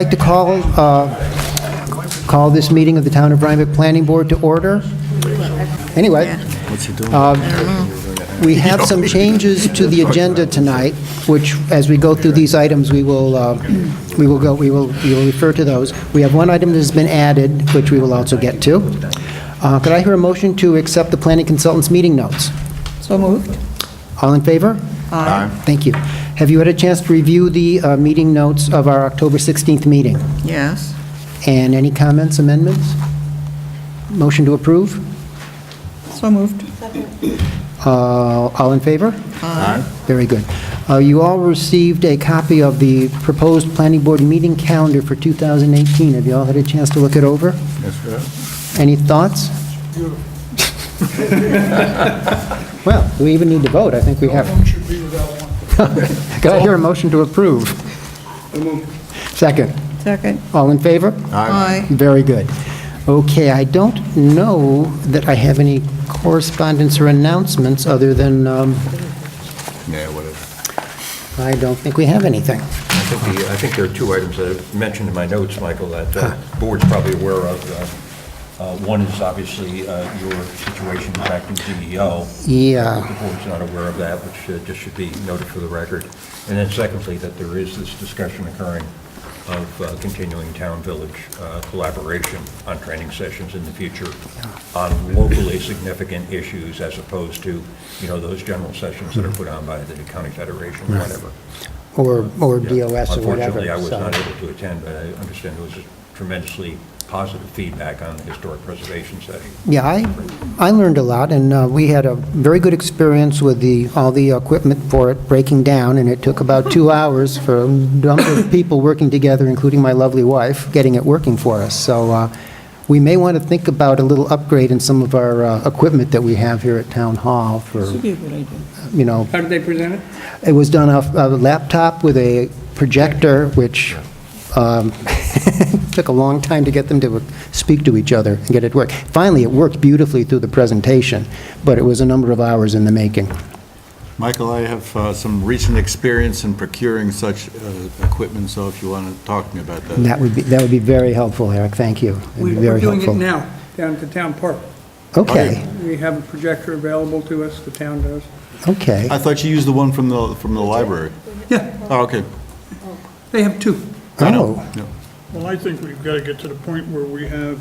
like to call, uh, call this meeting of the Town of Rhinebeck Planning Board to order. Anyway. um, We have some changes to the agenda tonight, which, as we go through these items, we will, uh, we will go, we will, we will refer to those. We have one item that has been added, which we will also get to. Uh, Could I hear a motion to accept the planning consultant's meeting notes? So moved. All in favor? Aye. Thank you. Have you had a chance to review the uh, meeting notes of our October 16th meeting? Yes. And any comments, amendments? Motion to approve? So moved. Uh, All in favor? Aye. Very good. Uh, You all received a copy of the proposed planning board meeting calendar for 2018. Have you all had a chance to look it over? Yes, sir. Any thoughts? Well, do we even need to vote? I think we have. Can I hear a motion to approve? Second. Second. All in favor? Aye. Very good. Okay, I don't know that I have any correspondence or announcements other than, um, Yeah, whatever. I don't think we have anything. I think the, I think there are two items that I mentioned in my notes, Michael, that the board's probably aware of. Uh, uh, One is obviously uh, your situation with acting CEO. Yeah. The board's not aware of that, which uh, just should be noted for the record. And then secondly, that there is this discussion occurring of uh, continuing town-village uh, collaboration on training sessions in the future on locally significant issues as opposed to, you know, those general sessions that are put on by the county federation or whatever. Or, or Yeah. DOS or whatever. Unfortunately, I was so- not able to attend, but I understand there was tremendously positive feedback on the historic preservation session. Yeah, I, I learned a lot, and uh, we had a very good experience with the, all the equipment for it breaking down, and it took about two hours for a number of people working together, including my lovely wife, getting it working for us. So uh, we may want to think about a little upgrade in some of our uh, equipment that we have here at Town Hall for, Should be a good idea. you know, How did they present it? it was done off a laptop with a projector, which um, took a long time to get them to speak to each other and get it to work. Finally, it worked beautifully through the presentation, but it was a number of hours in the making. Michael, I have uh, some recent experience in procuring such uh, equipment, so if you want to talk to me about And that. That would be, that would be very helpful, Eric, thank you. It'd be We- very We're helpful. doing it now, down at the town park. Okay, We have a projector available to us, the town does. okay. I thought you used the one from the, from the library. Yeah, Oh, okay. they have two. I know. Oh, Yeah. Well, I think we've got to get to the point where we have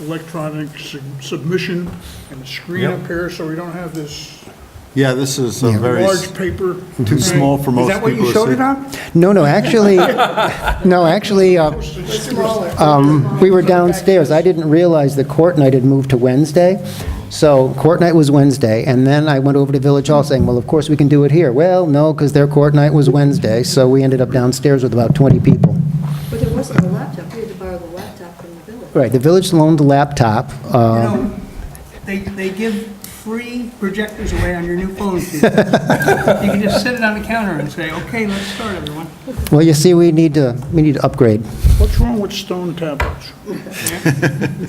electronic sub- submission and a screen Yep. up here, so we don't have this Yeah, this is a very, s- large paper. too small for most Is people that what you to showed see. it on? No, no, actually, no, actually, uh, um, we were downstairs. I didn't realize that court night had moved to Wednesday. So court night was Wednesday, and then I went over to Village Hall saying, well, of course, we can do it here. Well, no, because their court night was Wednesday, so we ended up downstairs with about 20 people. But there wasn't a laptop, we had to borrow the laptop from the village. Right, the village loaned the laptop. You Uh-huh. uh, know, they, they give free projectors away on your new phones. these days. You can just sit it on the counter and say, okay, let's start, everyone. Well, you see, we need to, we need to upgrade. What's wrong with stone tablets?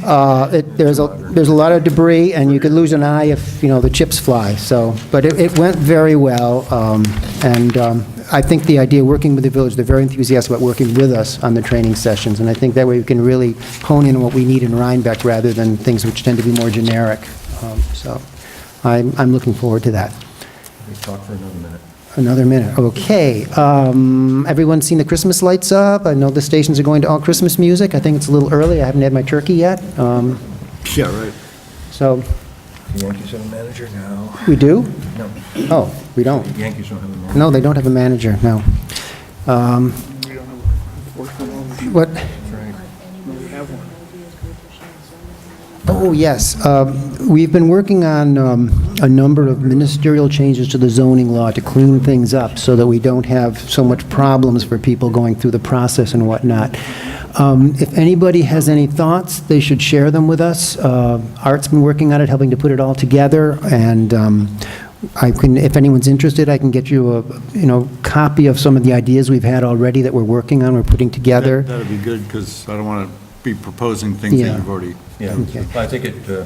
Uh, it- There's a, there's a lot of debris, and you could lose an eye if, you know, the chips fly, so, but it, it went very well, um, and um, I think the idea, working with the village, they're very enthusiastic about working with us on the training sessions, and I think that way we can really hone in on what we need in Rhinebeck rather than things which tend to be more generic, Um, so I'm, I'm looking forward to that. We talk for another minute. Another minute, okay. Um, Everyone seen the Christmas lights up? I know the stations are going to all Christmas music, I think it's a little early, I haven't had my turkey yet, Um, Yeah, right. so, The Yankees have a manager now? we do? No, Oh, we don't. the Yankees don't have a manager. No, they don't have a manager, no. Um, What, oh, yes. um, We've been working on um, a number of ministerial changes to the zoning law to clean things up so that we don't have so much problems for people going through the process and whatnot. Um, If anybody has any thoughts, they should share them with us. Uh, Art's been working on it, helping to put it all together, and um, I can, if anyone's interested, I can get you a, you know, copy of some of the ideas we've had already that we're working on, we're putting together. That- That'd be good, because I don't want to be proposing things that Yeah. you've already Yeah, Okay. I think it, uh,